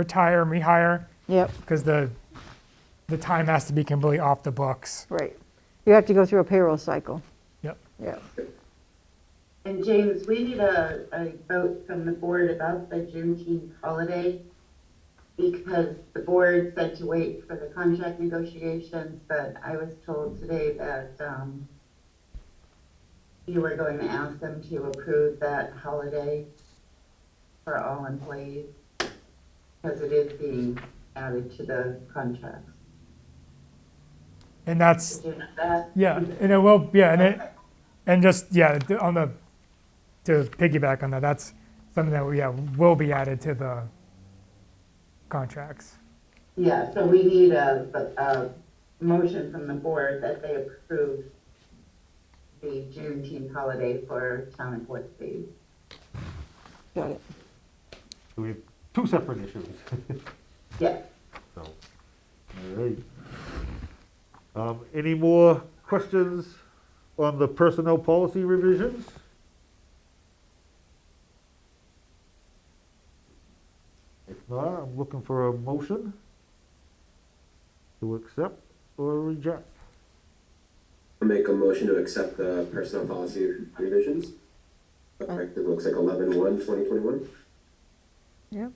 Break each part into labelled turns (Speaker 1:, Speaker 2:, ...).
Speaker 1: retire and rehire
Speaker 2: Yep,
Speaker 1: because the, the time has to be completely off the books.
Speaker 2: right. You have to go through a payroll cycle.
Speaker 1: Yep.
Speaker 2: Yep.
Speaker 3: And James, we need a, a vote from the board about the Juneteenth holiday because the board said to wait for the contract negotiations, but I was told today that, um, you were going to ask them to approve that holiday for all employees because it is being added to the contract.
Speaker 1: And that's,
Speaker 3: Do you know that?
Speaker 1: yeah, and it will, yeah, and it, and just, yeah, th- on the, to piggyback on that, that's something that, yeah, will be added to the contracts.
Speaker 3: Yeah, so we need a, a motion from the board that they approve the Juneteenth holiday for town and board fees.
Speaker 2: Got it.
Speaker 4: We have two separate issues.
Speaker 3: Yes.
Speaker 4: So, all right. Um, Any more questions on the personnel policy revisions? If not, I'm looking for a motion to accept or reject.
Speaker 5: I'll Make a motion to accept the personnel policy revisions. Effective, looks like eleven one, twenty twenty-one.
Speaker 2: Yep.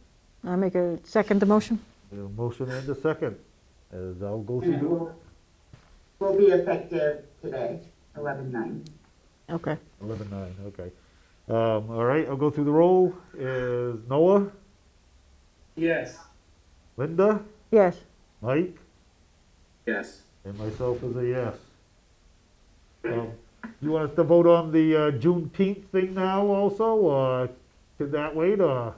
Speaker 2: I make a second the motion?
Speaker 4: A motion and a second, as I'll go
Speaker 3: And it
Speaker 4: through.
Speaker 3: will, will be effective today, eleven nine.
Speaker 2: Okay.
Speaker 4: Eleven nine, okay. Um, all right, I'll go through the roll. Is Noah,
Speaker 6: Yes.
Speaker 4: Linda,
Speaker 2: Yes,
Speaker 4: Mike,
Speaker 5: Yes.
Speaker 4: and myself as a yes. Um, you want us to vote on the uh, Juneteenth thing now also, or could that wait, or?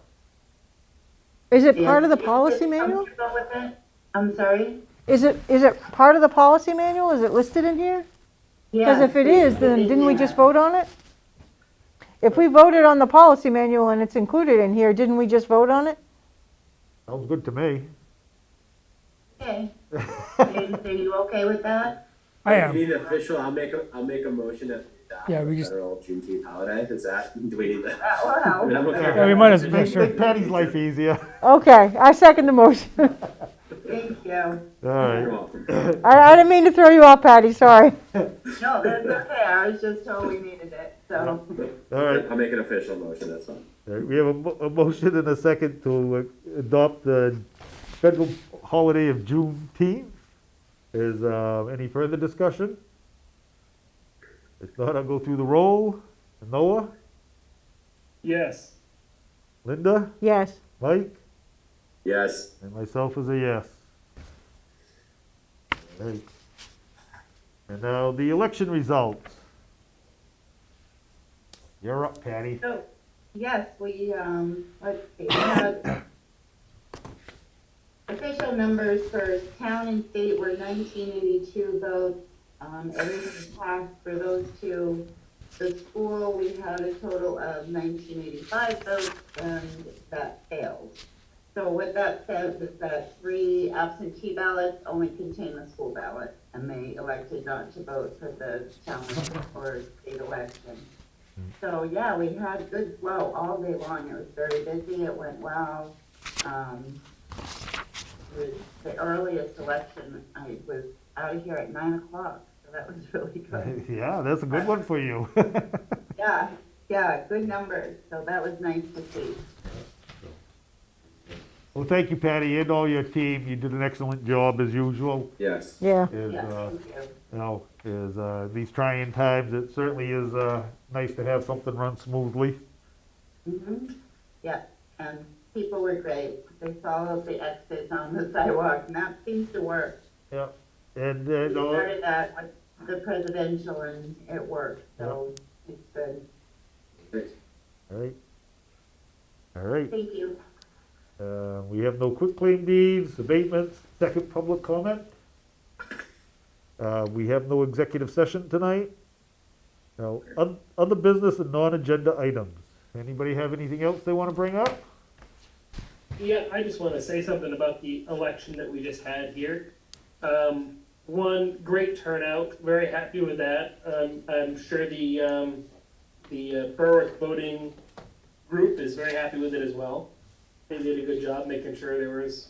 Speaker 2: is it part of the policy manual?
Speaker 3: Comfortable with it? I'm sorry?
Speaker 2: Is it, is it part of the policy manual? Is it listed in here? Because
Speaker 3: Yeah,
Speaker 2: if it is, then
Speaker 3: it's
Speaker 2: didn't we
Speaker 3: in
Speaker 2: just
Speaker 3: there.
Speaker 2: vote on it? If we voted on the policy manual and it's included in here, didn't we just vote on it?
Speaker 4: Sounds good to me.
Speaker 3: Okay. James, are you okay with that?
Speaker 1: I
Speaker 5: We
Speaker 1: am,
Speaker 5: need an official, I'll make a, I'll make a motion that. we adopt
Speaker 1: Yeah, we
Speaker 5: the
Speaker 1: just-
Speaker 5: Federal Juneteenth holiday, is that, do we need that?
Speaker 3: Wow.
Speaker 5: I mean, I'm okay with
Speaker 1: Yeah, we might
Speaker 5: that.
Speaker 1: as well make
Speaker 4: Make
Speaker 1: sure.
Speaker 4: make Patty's life easier.
Speaker 2: Okay, I second the motion.
Speaker 3: Thank you.
Speaker 4: All
Speaker 5: You're
Speaker 4: right,
Speaker 5: welcome.
Speaker 2: I, I didn't mean to throw you off, Patty, sorry.
Speaker 3: No, that's okay. I was just told we needed it, so.
Speaker 4: all right.
Speaker 5: I'll make an official motion, that's fine.
Speaker 4: All right, We have a, mo- a motion and a second to uh, adopt the federal holiday of Juneteenth. Is, uh, any further discussion? If not, I'll go through the roll. Noah,
Speaker 6: Yes.
Speaker 4: Linda,
Speaker 2: Yes,
Speaker 4: Mike,
Speaker 5: Yes,
Speaker 4: and myself is a yes. All right. And now the election results. You're up, Patty.
Speaker 3: So, yes, we, um, let's see, we had official numbers for town and state were nineteen eighty-two votes. Um, everything passed for those two. The school, we had a total of nineteen eighty-five votes and that failed. So what that says is that three absentee ballots only contain the school ballot and they elected not to vote for the town or state election. So, yeah, we had good flow all day long. It was very busy. It went well. Um, it was the earliest election, I was out of here at nine o'clock, so that was really good.
Speaker 4: Yeah, that's a good one for you.
Speaker 3: Yeah, yeah, good numbers. So that was nice to see.
Speaker 4: Well, thank you, Patty, and all your team. You did an excellent job as usual.
Speaker 5: yes.
Speaker 2: yeah,
Speaker 4: Is,
Speaker 3: Yeah,
Speaker 4: uh,
Speaker 3: thank you.
Speaker 4: you know, is, uh, these trying times, it certainly is, uh, nice to have something run smoothly.
Speaker 3: Mhm. Yeah, and people were great. They followed the exits on the sidewalk, and that seems to work.
Speaker 4: Yep. And,
Speaker 3: We
Speaker 4: and, uh,
Speaker 3: started that with the presidential, and it worked, so it's good.
Speaker 4: all right. All right,
Speaker 3: Thank you.
Speaker 4: uh, we have no quitclaim deeds, abatements, second public comment. Uh, we have no executive session tonight. No, oth- other business and non-agenda items. Anybody have anything else they wanna bring up?
Speaker 6: Yeah, I just want to say something about the election that we just had here. Um, one, great turnout, very happy with that. Um, I'm sure the, um, the uh, Berwick voting group is very happy with it as well. they did a good job making sure there was